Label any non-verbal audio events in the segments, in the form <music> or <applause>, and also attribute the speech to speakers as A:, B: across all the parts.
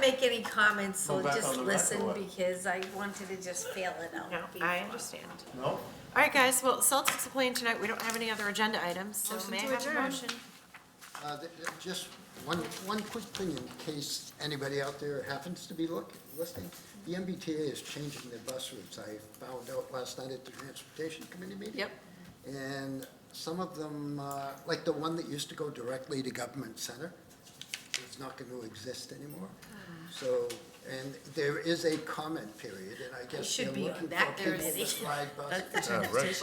A: make any comments, so
B: Go back
A: just
B: on the
A: listen
B: record.
A: because I wanted to just fail it out.
C: No,
A: before.
C: I understand.
B: No?
C: All right, guys, well, Celtics are playing tonight. We don't have any other agenda items, so
A: Motion
C: may I
A: to
C: have a
A: adjourn.
C: motion?
D: Uh, th- th- Just one, one quick thing in case anybody out there happens to be look, listening. The MBTA is changing their bus routes. I found out last night at the Transportation Committee meeting.
C: Yep.
D: And some of them, uh, like the one that used to go directly to Government Center, is not going to exist anymore.
A: Ah.
D: So, and there is a comment period, and I guess they're
A: should be on
D: looking
A: that
D: for people
A: committee.
D: with
A: <laughs>
D: ride
A: That's
D: buses.
A: the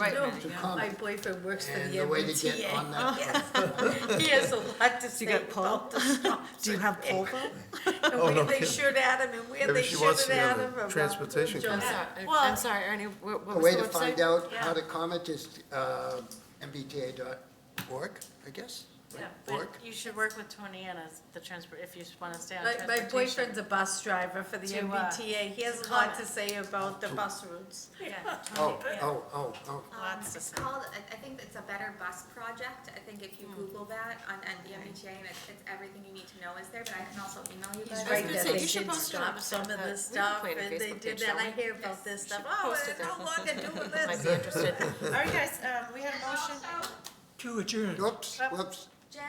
C: Right,
A: transportation.
D: To
A: No, My
D: comment.
A: boyfriend works for
D: And
A: the
D: the way to get on
A: MBTA. <laughs>
D: that, <laughs>
A: He has a lot to
C: Do
A: say
C: you got poll?
A: about this.
C: <laughs> Do you have
A: <laughs>
C: poll vote?
A: And
B: Oh, no
A: where they
B: kidding.
A: should at him and where
B: Maybe
A: they
B: she wants
A: shouldn't
B: to be on
A: at
B: the
A: him. about
B: transportation
A: Joe
C: I'm
B: committee.
A: Matt.
C: sorry, I'm sorry, Ernie, what what
D: A
C: was
D: way
C: the
D: to
C: website?
D: find out how
A: Yeah.
D: to comment is uh, mbta.org, I guess?
E: Yeah,
D: Org?
E: but you should work with Tony and as the transport, if you want to stay on
A: My, my
E: transportation.
A: boyfriend's a bus driver for the
E: To, uh,
A: MBTA. He has a lot to
E: comment.
A: say about the bus routes.
E: Yeah.
C: um,
D: Oh, oh, oh, oh.
C: Uh,
F: Um,
E: Lots to
F: It's
E: say.
F: called, I I think it's a Better Bus Project. I think if you Google that on NDMHA, and it's, it's everything you need to know is there, but I can also email you
A: He's
F: guys.
C: was
A: right
C: gonna
A: that
C: say,
A: they
C: you
A: did
C: should post it on
A: stop
C: the-
A: some of
C: uh, we can
A: this stuff
C: put it on
A: and they
C: Facebook
A: did
C: page,
A: that. I
C: shall we?
A: hear about this
C: you
A: stuff.
C: should
A: Oh,
C: post it
A: it's no
C: there.
A: longer
C: <laughs>
A: doing this.
C: Might be interested. All
D: <laughs>
C: right, guys, um, we had a motion.
B: To adjourn.
D: Whoops, whoops.
F: Jen,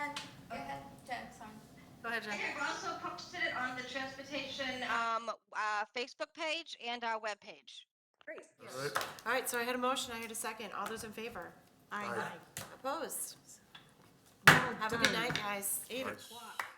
F: go ahead, Jen, sorry.
E: Go ahead, Jen.
G: I have also posted it on the transportation um, uh, Facebook page and our webpage.
B: All right.
C: All right, so I had a motion, I had a second. All those in favor? Aye. Opposed? Have a good night, guys. Eight o'clock.